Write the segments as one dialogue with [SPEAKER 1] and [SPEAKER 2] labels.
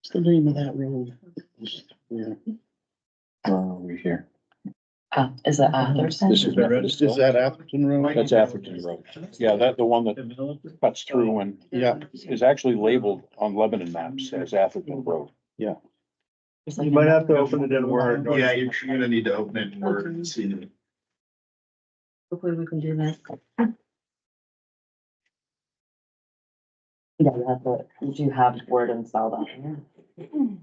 [SPEAKER 1] What's the name of that road? Yeah.
[SPEAKER 2] Where are we here?
[SPEAKER 3] Uh, is it
[SPEAKER 4] Mhm.
[SPEAKER 3] Atherton?
[SPEAKER 2] This is-
[SPEAKER 1] Is that Atherton Road?
[SPEAKER 2] That's Atherton Road. Yeah, that, the one that cuts through and
[SPEAKER 1] Yeah,
[SPEAKER 2] is actually labeled on Lebanon maps as Atherton Road.
[SPEAKER 4] You might have to open it in Word.
[SPEAKER 5] Yeah, you're gonna need to open it in Word and see the
[SPEAKER 3] Hopefully we can do that. Yeah, you have the, you do have Word installed on here.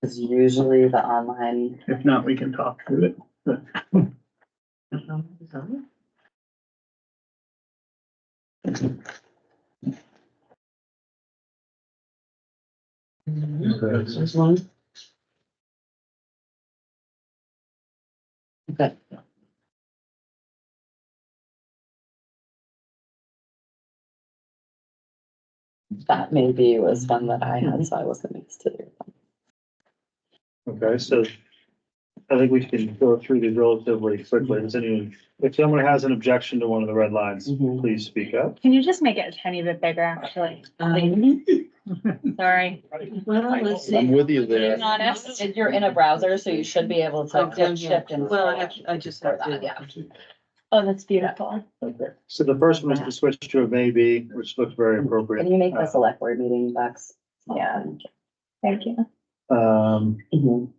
[SPEAKER 3] Cause usually the online.
[SPEAKER 4] If not, we can talk through it.
[SPEAKER 1] Mm-hmm.
[SPEAKER 3] This one? Okay. That maybe was one that I had, so I wasn't used to.
[SPEAKER 4] Okay, so I think we can go through these relatively quickly. Does anyone, if someone has an objection to one of the red lines,
[SPEAKER 3] Mhm.
[SPEAKER 4] please speak up.
[SPEAKER 6] Can you just make it a tiny bit bigger, actually?
[SPEAKER 3] Um,
[SPEAKER 6] Sorry.
[SPEAKER 7] Well, let's
[SPEAKER 1] I'm
[SPEAKER 7] see.
[SPEAKER 1] with you there.
[SPEAKER 6] Being honest.
[SPEAKER 3] and You're in a browser, so you should be able to
[SPEAKER 7] Okay,
[SPEAKER 3] dip, shift and.
[SPEAKER 7] Well, I have, I just have
[SPEAKER 3] scroll that, Yeah.
[SPEAKER 7] to.
[SPEAKER 6] Oh, that's beautiful.
[SPEAKER 4] Okay. So the first one is to switch to a maybe, which looks very
[SPEAKER 3] Can
[SPEAKER 4] appropriate.
[SPEAKER 3] you make the select board meeting box?
[SPEAKER 6] Yeah. Thank you.
[SPEAKER 4] Um,
[SPEAKER 3] Mhm.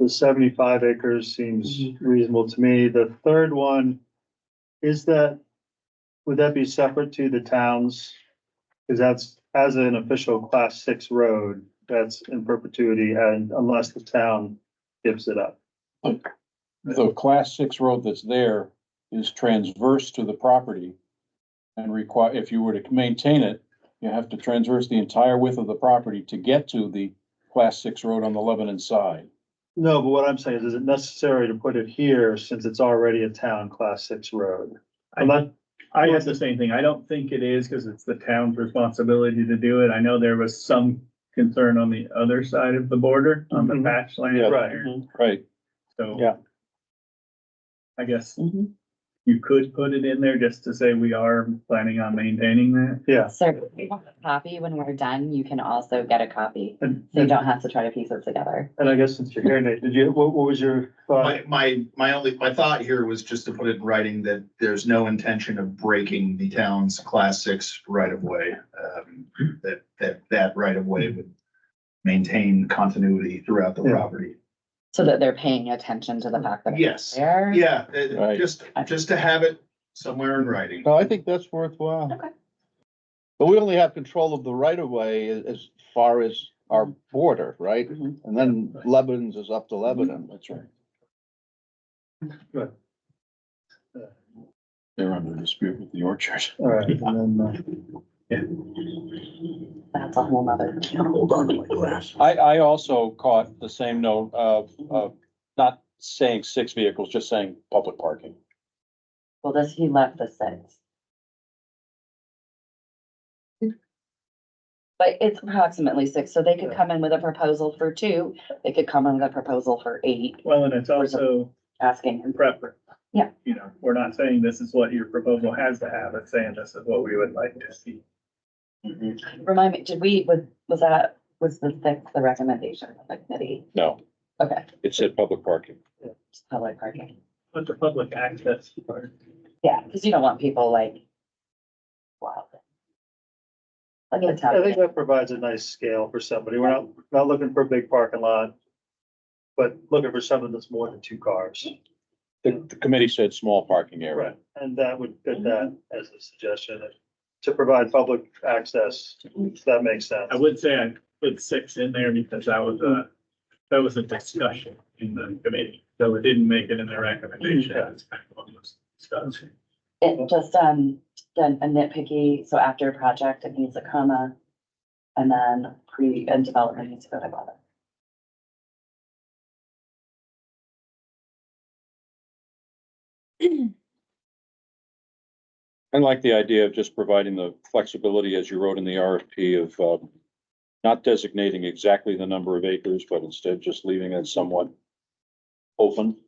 [SPEAKER 4] the seventy-five acres seems reasonable to me. The third one, is that, would that be separate to the towns? Cause that's, as an official class six road, that's in perpetuity and unless the town gives it up.
[SPEAKER 2] The class six road that's there is transverse to the property. And require, if you were to maintain it, you have to transverse the entire width of the property to get to the class six road on the Lebanon side.
[SPEAKER 4] No, but what I'm saying is, is it necessary to put it here since it's already a town class six road?
[SPEAKER 8] I
[SPEAKER 4] Unless,
[SPEAKER 8] I had the same thing. I don't think it is because it's the town's responsibility to do it. I know there was some concern on the other side of the border, on the
[SPEAKER 4] Mhm.
[SPEAKER 8] patch land
[SPEAKER 2] Yeah.
[SPEAKER 8] there,
[SPEAKER 2] Right.
[SPEAKER 8] so.
[SPEAKER 4] Yeah. Mm-hmm.
[SPEAKER 8] I guess
[SPEAKER 3] Mhm.
[SPEAKER 8] you could put it in there just to say we are planning on maintaining that.
[SPEAKER 4] yeah.
[SPEAKER 3] So if you want a copy, when we're done, you can also get a copy,
[SPEAKER 4] And,
[SPEAKER 3] so you
[SPEAKER 4] and
[SPEAKER 3] don't have to try to piece it together.
[SPEAKER 4] and I guess since you're here, Nate, did you, what, what was your thought?
[SPEAKER 5] My, my, my only, my thought here was just to put it in writing that there's no intention of breaking the town's class six right of way. Um, that, that, that right of way would maintain continuity throughout the
[SPEAKER 4] Yeah.
[SPEAKER 5] property.
[SPEAKER 3] So that they're paying attention to the fact that. it's
[SPEAKER 5] Yes.
[SPEAKER 3] There.
[SPEAKER 5] Yeah, it-
[SPEAKER 2] Right.
[SPEAKER 5] just, just to have it somewhere in writing.
[SPEAKER 2] No, I think that's worthwhile.
[SPEAKER 3] Okay.
[SPEAKER 2] But we only have control of the right of way as, as far as our border, right?
[SPEAKER 3] Mhm.
[SPEAKER 2] And then Lebanon's is up to Lebanon. That's right.
[SPEAKER 4] Good.
[SPEAKER 2] They're under dispute with the orchard.
[SPEAKER 4] All right, and then, uh,
[SPEAKER 3] That's a whole nother.
[SPEAKER 1] Hold on to my glass.
[SPEAKER 2] I, I also caught the same note of, of not saying six vehicles, just saying public parking.
[SPEAKER 3] Well, does he left the six? But it's approximately six, so they could come in with a proposal for two, they could come in with a proposal for eight,
[SPEAKER 8] Well, and it's also
[SPEAKER 3] asking him.
[SPEAKER 8] preference.
[SPEAKER 3] Yeah.
[SPEAKER 8] You know, we're not saying this is what your proposal has to have. It's saying this is what we would like to see.
[SPEAKER 3] Remind me, did we, was, was that, was the six the recommendation of the committee?
[SPEAKER 2] No,
[SPEAKER 3] Okay,
[SPEAKER 2] it said public parking.
[SPEAKER 3] just public parking.
[SPEAKER 8] But the public access part.
[SPEAKER 3] Yeah, because you don't want people like. Wow. Like a
[SPEAKER 4] I think
[SPEAKER 3] town.
[SPEAKER 4] that provides a nice scale for somebody. We're not, not looking for a big parking lot. But looking for something that's more than two cars.
[SPEAKER 2] The, the committee said small parking area.
[SPEAKER 4] Right. And that would fit that as a suggestion to provide public access, if that makes sense.
[SPEAKER 8] I would say I put six in there because that was a, that was a discussion in the committee, so it didn't make it in the recommendation. It's kind of what was discussed.
[SPEAKER 3] It just, um, then a nitpicky, so after a project, it needs a comma. And then pre and development needs to go together.
[SPEAKER 2] I like the idea of just providing the flexibility, as you wrote in the RFP, of, um, not designating exactly the number of acres, but instead just leaving it somewhat open.